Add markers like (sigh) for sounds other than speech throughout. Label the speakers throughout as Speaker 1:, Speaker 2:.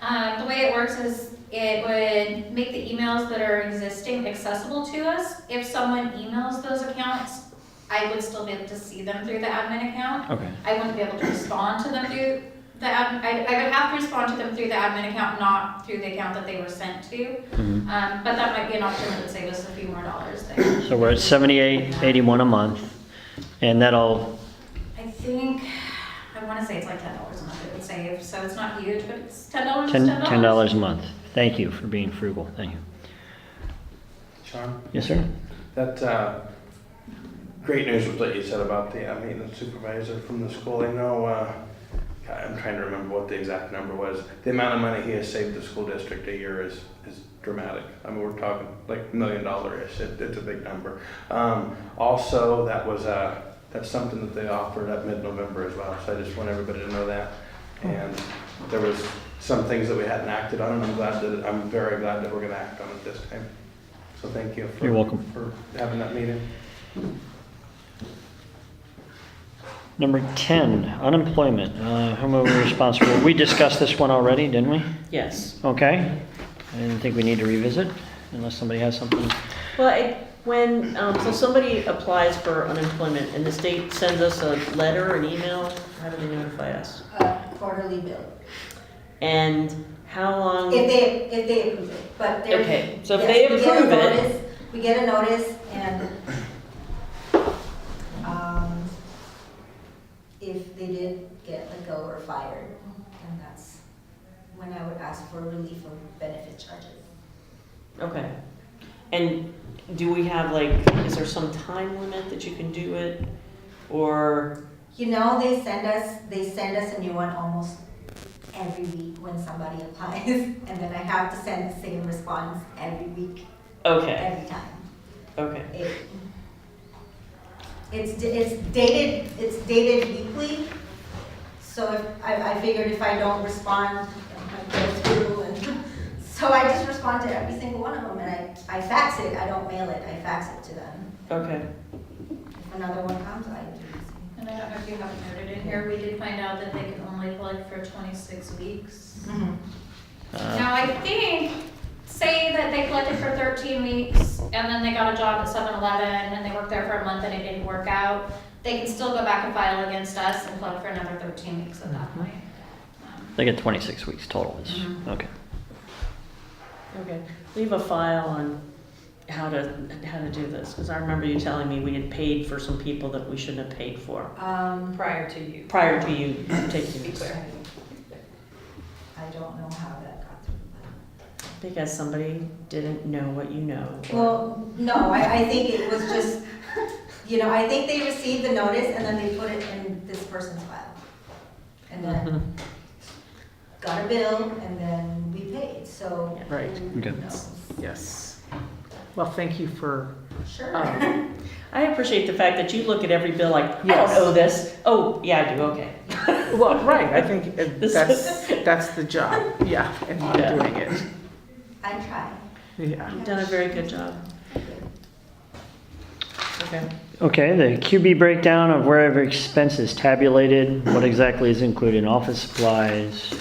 Speaker 1: Um, the way it works is it would make the emails that are existing accessible to us. If someone emails those accounts, I would still be able to see them through the admin account.
Speaker 2: Okay,
Speaker 1: I wouldn't be able to respond to them through the, ad- I, I would have to respond to them through the admin account, not through the account that they were sent to.
Speaker 2: mhm.
Speaker 1: Um, but that might be an option that would save us a few more dollars there.
Speaker 2: so we're at seventy-eight, eighty-one a month, and that'll,
Speaker 1: I think, I wanna say it's like ten dollars a month it would save, so it's not huge, but it's ten dollars,
Speaker 2: ten, ten dollars a month. Thank you for being frugal, thank you.
Speaker 3: Sean,
Speaker 2: Yes, sir?
Speaker 3: that, uh, great news was that you said about the uh, maintenance supervisor from the school. I know, uh, I'm trying to remember what the exact number was. The amount of money he has saved the school district a year is, is dramatic. I mean, we're talking like million dollar-ish. It, it's a big number. Um, also, that was, uh, that's something that they offered at mid-November as well, so I just want everybody to know that.
Speaker 2: Oh.
Speaker 3: And there was some things that we hadn't acted on, and I'm glad that, I'm very glad that we're gonna act on it this time. So thank you for.
Speaker 2: You're welcome.
Speaker 3: For having that meeting.
Speaker 2: Number ten, unemployment, uh, whom are we responsible? We discussed this one already, didn't we?
Speaker 4: Yes.
Speaker 2: Okay, I didn't think we need to revisit unless somebody has something.
Speaker 4: Well, I, when, um, so somebody applies for unemployment and the state sends us a letter, an email, how do they notify us?
Speaker 5: a quarterly bill,
Speaker 4: And how long?
Speaker 5: if they, if they approve it, but they're.
Speaker 4: Okay, so if
Speaker 5: yes,
Speaker 4: they
Speaker 5: we get a
Speaker 4: approve it-
Speaker 5: notice- We get a notice and, um, if they did get let go or fired, then that's when I would ask for relief from benefit charges.
Speaker 4: Okay. And do we have like, is there some time limit that you can do it? Or,
Speaker 5: You know, they send us, they send us a new one almost every week when somebody (laughs) applies, and then I have to send the same response every week,
Speaker 4: okay,
Speaker 5: every time.
Speaker 4: okay,
Speaker 5: It- It's, d- it's dated, it's dated weekly, so if, I, I figured if I don't respond, I go through and, (laughs) so I just respond to every single one of them, and I, I fax it, I don't mail it, I fax it to them.
Speaker 4: okay.
Speaker 5: If another one comes, I do.
Speaker 1: And I don't know if you have noted in here, we did find out that they can only collect for twenty-six weeks.
Speaker 2: Uh,
Speaker 1: Now, I think, say that they collected for thirteen weeks, and then they got a job at 7-Eleven, and they worked there for a month and it didn't work out, they can still go back and file against us and collect for another thirteen weeks at that point. Um,
Speaker 2: They get twenty-six weeks total, is,
Speaker 1: Mhm.
Speaker 2: okay.
Speaker 4: Okay, leave a file on how to, how to do this, because I remember you telling me we had paid for some people that we shouldn't have paid for
Speaker 5: Um,
Speaker 6: prior to you.
Speaker 4: prior to you taking
Speaker 6: To be
Speaker 4: this.
Speaker 6: clear.
Speaker 5: I don't know how that got through, but.
Speaker 4: Because somebody didn't know what you know. or-
Speaker 5: Well, no, I, I think it was just, you know, I think they received the notice and then they put it in this person's file. And then got a bill and then we paid, so.
Speaker 4: Yeah.
Speaker 7: Right.
Speaker 5: who
Speaker 2: Okay.
Speaker 5: knows?
Speaker 7: Yes. Well, thank you for,
Speaker 5: Sure.
Speaker 7: um,
Speaker 4: I appreciate the fact that you look at every bill like, I don't
Speaker 7: Yes.
Speaker 4: owe this. Oh, yeah, I do, okay.
Speaker 7: well, right, I think uh,
Speaker 4: This
Speaker 7: that's, that's the job, yeah, and not
Speaker 4: Yeah.
Speaker 7: doing it,
Speaker 5: I tried.
Speaker 7: yeah.
Speaker 4: You've done a very good job. Okay.
Speaker 2: Okay, the QB breakdown of wherever expenses tabulated, what exactly is included in office supplies?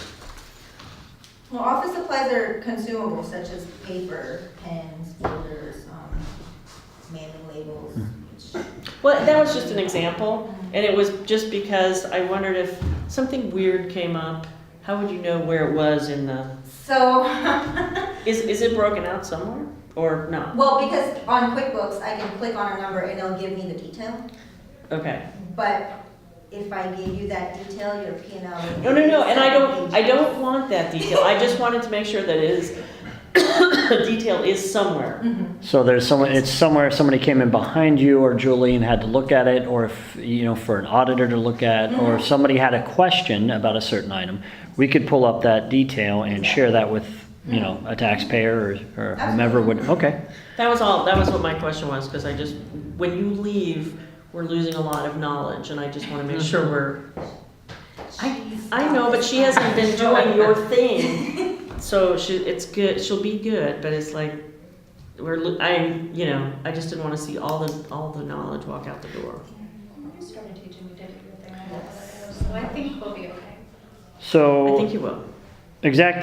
Speaker 5: Well, office supplies are consumable such as paper, pens, folders, um, mailing labels, which,
Speaker 4: Well, that was just an example, and it was just because I wondered if something weird came up, how would you know where it was in the,
Speaker 5: so. (laughs)
Speaker 4: is, is it broken out somewhere or not?
Speaker 5: Well, because on QuickBooks, I can click on a number and it'll give me the detail.
Speaker 4: Okay.
Speaker 5: But if I gave you that detail, your P and L.
Speaker 4: No, no, no, and I don't, I don't want that detail. I just wanted to make sure that it is, (coughs) detail is somewhere.
Speaker 2: So there's someone, it's somewhere, somebody came in behind you or Julie and had to look at it, or if, you know, for an auditor to look at, or
Speaker 4: Mm-hmm.
Speaker 2: if somebody had a question about a certain item, we could pull up that detail and share that with, you
Speaker 4: Mm-hmm.
Speaker 2: know, a taxpayer or, or whomever would, okay.
Speaker 4: That was all, that was what my question was, because I just, when you leave, we're losing a lot of knowledge, and I just want to make sure we're,
Speaker 5: I,
Speaker 4: I know, but she hasn't been doing your thing. So she, it's good, she'll be good, but it's like, we're, lo- I, you know, I just didn't want to see all the, all the knowledge walk out the door.
Speaker 1: You started teaching me to do your thing, I love it. so I think we'll be okay.
Speaker 4: I
Speaker 2: So
Speaker 4: think you will.
Speaker 2: exact